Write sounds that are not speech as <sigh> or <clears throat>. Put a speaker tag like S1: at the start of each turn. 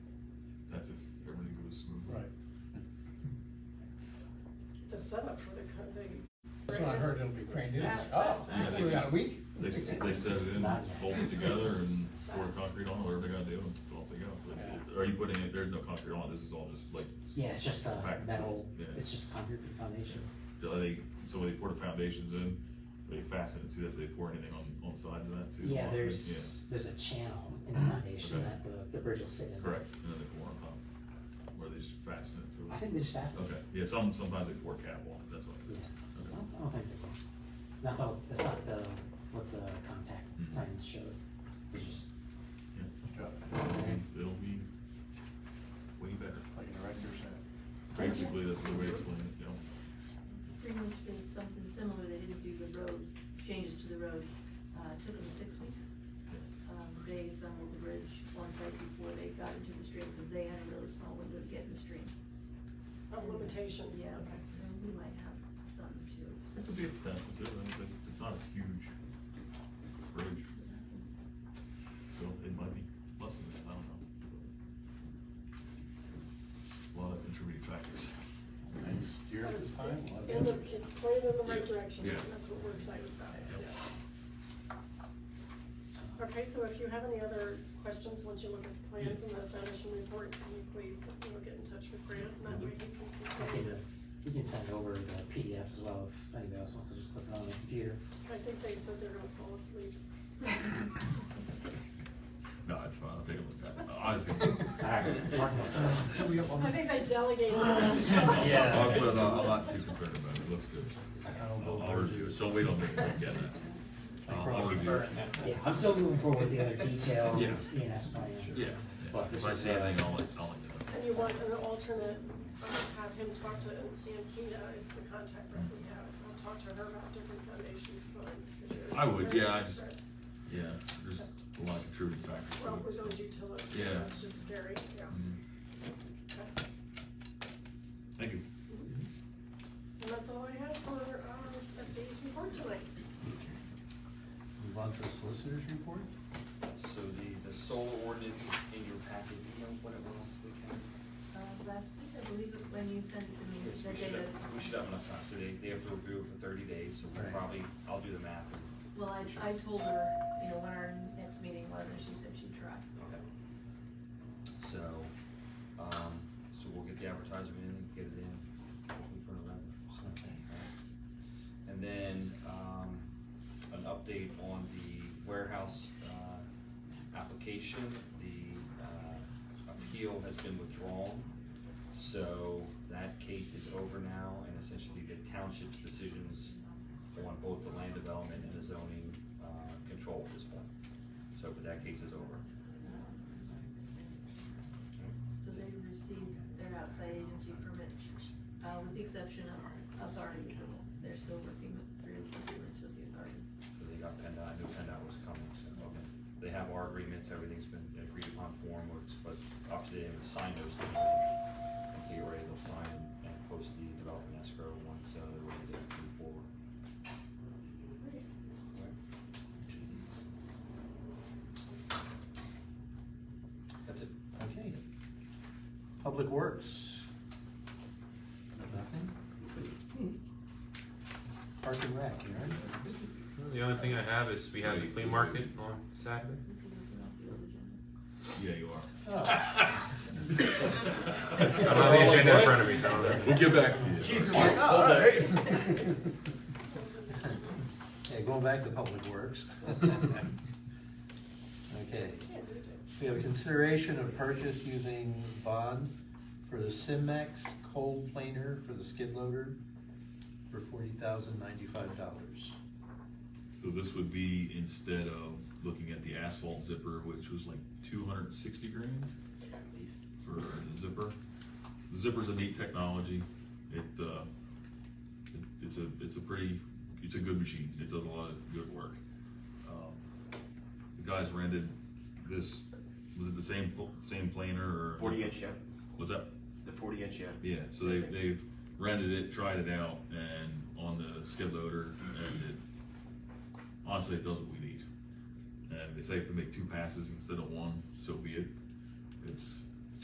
S1: really smoothly.
S2: Right.
S3: The setup for the co- the.
S2: That's what I heard, it'll be great news.
S3: Fast,
S2: Oh,
S3: fast,
S1: fast.
S2: we got a week?
S1: They, s- they set it in,
S3: Not yet.
S1: bolt it together
S4: <laughs>
S1: and
S3: It's
S1: pour
S3: fast.
S1: concrete on it, whatever they gotta do, and off they go. That's it. Are you putting it, there's no concrete on it, this is all just like.
S4: Yeah, it's just a
S1: packed
S4: metal,
S1: tools. Yeah.
S4: it's just a concrete foundation.
S1: Do they, so they pour the foundations in, they fasten it to that, do they pour anything on, on the sides of that too?
S4: Yeah,
S1: Concrete?
S4: there's, there's a channel in the
S1: <clears throat>
S4: foundation
S1: Okay.
S4: that the, the bridge will sit in.
S1: Yeah. Correct, and then they pour on top, where they just fasten it through.
S4: I think they just fastened.
S1: Okay, yeah, some, sometimes they pour cap on it, that's why.
S4: Yeah, I
S1: Okay.
S4: don't, I don't think they will. That's all, that's not the, what the contact
S1: Mhm.
S4: plans showed. It's just,
S1: Yeah.
S2: Okay.
S1: It'll be way better.
S2: Like in a regular set.
S1: Basically, that's the way to explain it, you know?
S5: Pretty much did something similar, they didn't do the road, changes to the road, uh, took them six weeks. Um, they assembled the bridge on site before they got into the stream, because they had a really small window to get in the stream.
S3: Of Oh, limitations,
S5: Yeah,
S3: okay.
S5: and we might have some too.
S1: It could be a potential too, and it's, like- it's not a huge bridge,
S5: Uh,
S1: so it might be less than that, I don't know. A lot of contributing factors.
S2: Next year
S3: But
S2: at
S3: It's
S2: the time.
S3: it's
S2: we'll have
S3: in the,
S2: it.
S3: it's pointed in the right
S1: Yeah,
S3: direction, and
S1: yes.
S3: that's what we're excited about, yeah.
S4: so,
S3: Okay, so if you have any other questions, once you look at the plans and the foundation report, can you please, you know, get in touch with Grant, and that way he
S4: I
S3: can
S4: can,
S3: consider.
S4: uh, we can send over the PDFs as well if anybody else wants to just look it on the computer.
S3: I think they said they're gonna
S2: <laughs>
S3: fall asleep.
S1: <laughs> No, it's not, I'll take a look at it, honestly.
S4: Alright, Mark,
S2: Are we up on-
S3: I think they delegated
S2: <laughs>
S3: that.
S2: Yeah.
S1: Also, no, I'm not too concerned about it, it looks good.
S2: I'll go
S1: I'll I'll review it, so we don't get that.
S2: I
S1: I'll- I'll
S2: promise
S1: review
S2: Bert
S1: it.
S2: that.
S4: Yeah, I'm still moving forward with the other details,
S1: Yeah.
S4: ENS plan.
S1: Yeah,
S4: But this
S1: if I
S4: was,
S1: see
S4: uh,
S1: anything, I'll, let- I'll let you know.
S3: And you want an alternate, uh, have him talk to, and Kita is the contact rep we have, I'll talk to her about different foundation designs. 'cause you're
S1: I would, yeah, I
S3: concerned
S1: just-
S3: about
S1: Yeah, there's a lot of contributing factors. to
S3: spread. Well,
S1: it,
S3: with
S1: so.
S3: those utilities,
S1: Yeah.
S3: that's just scary, yeah.
S1: Mhm.
S3: Okay.
S1: Thank you.
S3: And that's all I have for, um, SD's report tonight.
S2: Move on to the solicitor's report?
S6: So the, the solar ordinance is in your packet, do you know when it went on to the county?
S5: Uh, last week, I believe, it- when you sent it to me,
S6: Yes,
S5: that
S6: we should
S5: they
S6: have,
S5: had-
S6: we should have enough time, so they, they have to review it for thirty days, so we'll
S2: Right.
S6: probably, I'll do the math. and-
S5: Well, I, I told her, you know, when our next meeting was, and she said she'd try.
S6: So, um, so we'll get the advertisement in, get it in, hopefully for November. so.
S2: Okay.
S6: And then, um, an update on the warehouse, uh, application, the, uh, appeal has been withdrawn. So that case is over now, and essentially the township's decisions on both the land development and the zoning, uh, control at this point. So, but that case is over.
S5: So they received their outside agency permits, uh, with the exception of authority approval. They're still working with- through agreements with the authority.
S6: So they got PennDOT, I knew PennDOT was coming, so, okay. They have our agreements, everything's been agreed upon form, but it's- but obviously they haven't signed those things. And so you're ready, they'll sign and, and post the development escrow once, uh, they're ready to move forward. That's it.
S2: Okay. Public Works? Nothing? Park and Rec, you ready?
S7: The only thing I have is we have the flea market on Saturday.
S5: This is looking off the
S1: Yeah,
S3: Mm-hmm.
S5: old agenda.
S1: you are.
S2: Oh,
S7: I don't have the agenda in front of me, so I don't know.
S1: get back to
S2: Keith was like, oh, all right. Okay, going back to Public
S7: <laughs>
S2: Works. Okay.
S3: Yeah, we do.
S2: We have consideration of purchase using bond for the Simex cold planer for the skid loader for forty thousand ninety-five dollars.
S1: So this would be instead of looking at the asphalt zipper, which was like two hundred and sixty grand
S6: At least.
S1: for the zipper. The Zipper's a neat technology. It, uh, it, it's a, it's a pretty, it's a good machine. It does a lot of good work. Um, The guys rented this, was it the same, pl- same planer or?
S8: Forty inch, yeah,
S1: What's that?
S8: the forty inch, yeah.
S1: Yeah, so they, they've rented it, tried it out, and on the skid loader, and it, honestly, it does what we need. And if they have to make two passes instead of one, so be it. It's,